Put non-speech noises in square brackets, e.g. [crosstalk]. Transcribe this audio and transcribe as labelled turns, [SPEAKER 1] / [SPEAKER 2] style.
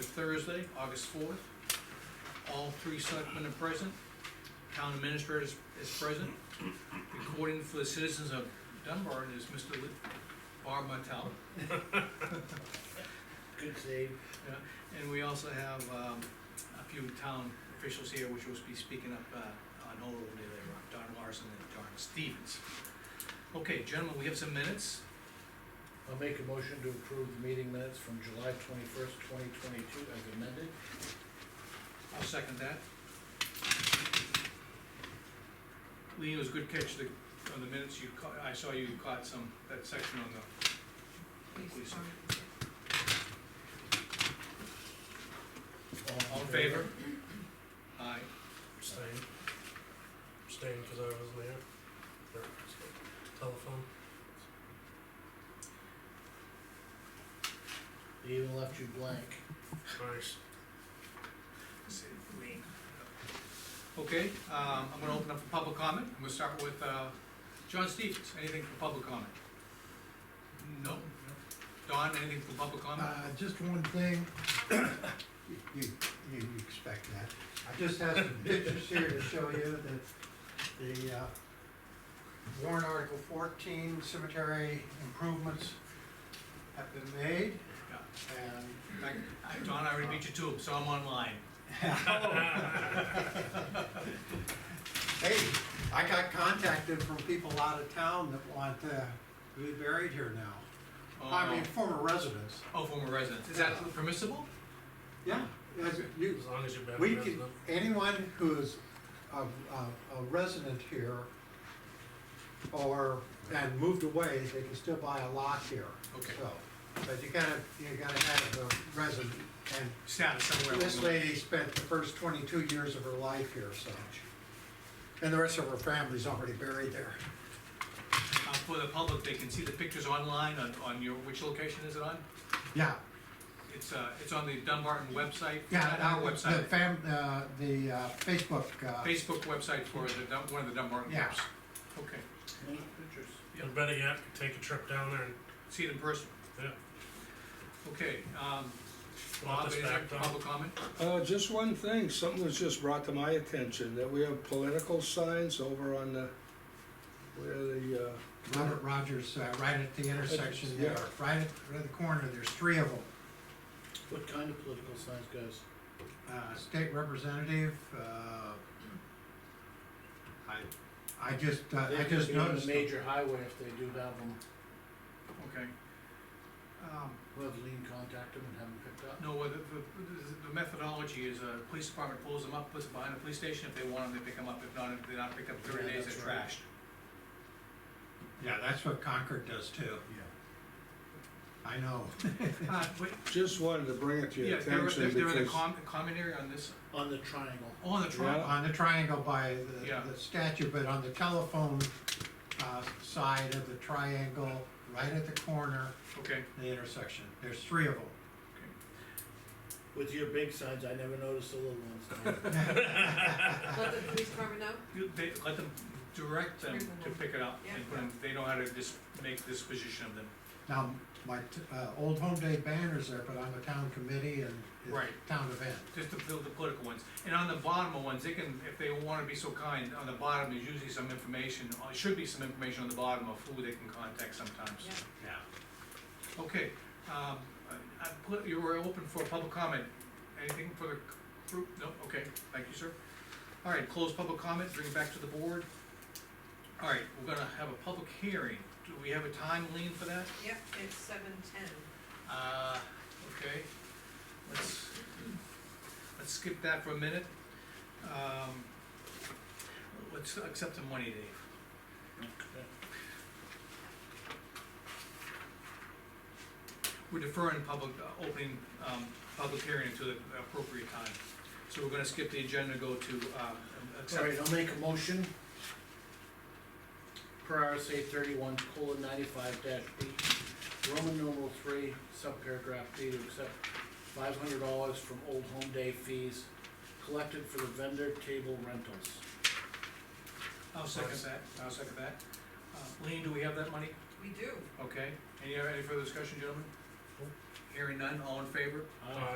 [SPEAKER 1] Thursday, August fourth. All three selectmen are present, town administrator is, is present. Recording for the citizens of Dunbar is Mr. Lee- Bob Martell.
[SPEAKER 2] Good save.
[SPEAKER 1] Yeah, and we also have, um, a few town officials here which will be speaking up, uh, on hold over there, Don Larson and Don Stevens. Okay, gentlemen, we have some minutes,
[SPEAKER 2] I'll make a motion to approve the meeting minutes from July twenty-first, twenty twenty-two as amended.
[SPEAKER 1] I'll second that. Lean, it was a good catch, the, on the minutes you caught, I saw you caught some, that section on the, Please. all in favor? Aye,
[SPEAKER 3] Abstain. Abstain because I wasn't there. Or, so, Telephone.
[SPEAKER 2] They even left you blank.
[SPEAKER 3] Nice.
[SPEAKER 1] Say, Lean. Okay, um, I'm gonna open up for public comment, I'm gonna start with, uh, John Stevens, anything for public comment? No. Don, anything for public comment?
[SPEAKER 4] Uh, just one thing, [coughs] you, you you expect that. I just have some pictures here to show you that the, uh, warrant article fourteen cemetery improvements have been made
[SPEAKER 1] Yeah.
[SPEAKER 4] and.
[SPEAKER 1] In fact, Don, I already beat you to him, so I'm online.
[SPEAKER 3] [laughs]
[SPEAKER 4] Hey, I got contacted from people out of town that want to be buried here now. I mean,
[SPEAKER 1] Oh,
[SPEAKER 4] former residents.
[SPEAKER 1] Oh, former residents, is that permissible?
[SPEAKER 4] Yeah, as you,
[SPEAKER 3] As long as you're back
[SPEAKER 4] We
[SPEAKER 3] resident.
[SPEAKER 4] can, anyone who's a, a, a resident here or, and moved away, they can still buy a lot here,
[SPEAKER 1] Okay.
[SPEAKER 4] so. But you gotta, you gotta have a resident, and
[SPEAKER 1] Status somewhere.
[SPEAKER 4] this lady spent the first twenty-two years of her life here, so. And the rest of her family's already buried there.
[SPEAKER 1] Uh, For the public, they can see the pictures online on, on your, which location is it on?
[SPEAKER 4] Yeah,
[SPEAKER 1] It's, uh, it's on the Dunbarton website.
[SPEAKER 4] yeah,
[SPEAKER 1] not
[SPEAKER 4] now,
[SPEAKER 1] Our
[SPEAKER 4] the
[SPEAKER 1] website,
[SPEAKER 4] fam, uh, the uh, Facebook, uh,
[SPEAKER 1] Facebook website for the, Dun- one of the Dunbarton
[SPEAKER 4] Yeah.
[SPEAKER 1] groups. Okay,
[SPEAKER 2] Any pictures?
[SPEAKER 3] And better yet, take a trip down there and,
[SPEAKER 1] see it in person.
[SPEAKER 3] yeah.
[SPEAKER 1] Okay, um,
[SPEAKER 3] Want
[SPEAKER 1] Bob,
[SPEAKER 3] this
[SPEAKER 1] is there
[SPEAKER 3] back down?
[SPEAKER 1] public comment?
[SPEAKER 5] Uh, just one thing, something was just brought to my attention, that we have political signs over on the, where the, uh,
[SPEAKER 4] Robert Rogers, uh, right at the intersection there,
[SPEAKER 5] Yeah.
[SPEAKER 4] right at, right at the corner, there's three of them.
[SPEAKER 2] What kind of political signs, guys?
[SPEAKER 4] uh, state representative, uh, I, I just, uh,
[SPEAKER 2] They
[SPEAKER 4] I
[SPEAKER 2] could
[SPEAKER 4] just
[SPEAKER 2] be on the
[SPEAKER 4] noticed. them.
[SPEAKER 2] Major highway if they do have them,
[SPEAKER 1] Okay. Um,
[SPEAKER 2] we'll have Lean contact them and have them picked up.
[SPEAKER 1] No, well, the, the- the methodology is, uh, police department pulls them up, puts them behind a police station, if they want them, they pick them up, if not, if they not pick up thirty
[SPEAKER 2] Yeah,
[SPEAKER 1] days, they're
[SPEAKER 2] that's right.
[SPEAKER 1] trashed.
[SPEAKER 4] Yeah, that's what Concord does too,
[SPEAKER 2] Yeah.
[SPEAKER 4] I know.
[SPEAKER 2] [laughs]
[SPEAKER 1] Uh, but,
[SPEAKER 5] just wanted to bring it to
[SPEAKER 1] yeah,
[SPEAKER 5] your
[SPEAKER 1] they're,
[SPEAKER 5] attention
[SPEAKER 1] they're they're in the
[SPEAKER 5] because.
[SPEAKER 1] com- common area on this,
[SPEAKER 2] On the triangle.
[SPEAKER 1] oh, on the truck.
[SPEAKER 5] Yeah.
[SPEAKER 4] On the triangle by
[SPEAKER 1] Yeah.
[SPEAKER 4] the, the statue, but on the telephone, uh, side of the triangle, right at the corner,
[SPEAKER 1] okay.
[SPEAKER 4] the intersection, there's three of them.
[SPEAKER 2] With your big signs, I never noticed the little
[SPEAKER 4] [laughs]
[SPEAKER 2] ones.
[SPEAKER 6] Let the police department know?
[SPEAKER 1] You- They, let them, direct them to pick it up and put them, they know how to dis, make disposition of them.
[SPEAKER 4] Now, my, t- uh, Old Home Day banner's there, but I'm a town committee and it's
[SPEAKER 1] Right.
[SPEAKER 4] a town event.
[SPEAKER 1] Just to build the political ones, and on the bottom of ones, they can, if they wanna be so kind, on the bottom is usually some information, or should be some information on the bottom of who they can contact sometimes.
[SPEAKER 6] Yeah.
[SPEAKER 4] Yeah.
[SPEAKER 1] Okay, um, I, I put, you were open for public comment, anything for the group? No, okay, thank you, sir. All right, close public comment, bring it back to the board. All right, we're gonna have a public hearing, do we have a time lean for that?
[SPEAKER 6] Yep, it's seven ten.
[SPEAKER 1] Uh, okay, let's, let's skip that for a minute. Um, let's accept the money, Dave. We're deferring public, uh, opening, um, public hearing to the appropriate time. So we're gonna skip the agenda, go to, um, accept,
[SPEAKER 2] Alright, I'll make a motion. Per RSA thirty-one, colon ninety-five dash B, Roman numeral three, subparagraph B, to accept five hundred dollars from Old Home Day fees collected for the vendor table rentals.
[SPEAKER 1] I'll second that, I'll second that. Uh, Lean, do we have that money? uh,
[SPEAKER 6] We do.
[SPEAKER 1] Okay, any, any further discussion, gentlemen? Hearing none, all in favor?
[SPEAKER 2] Uh,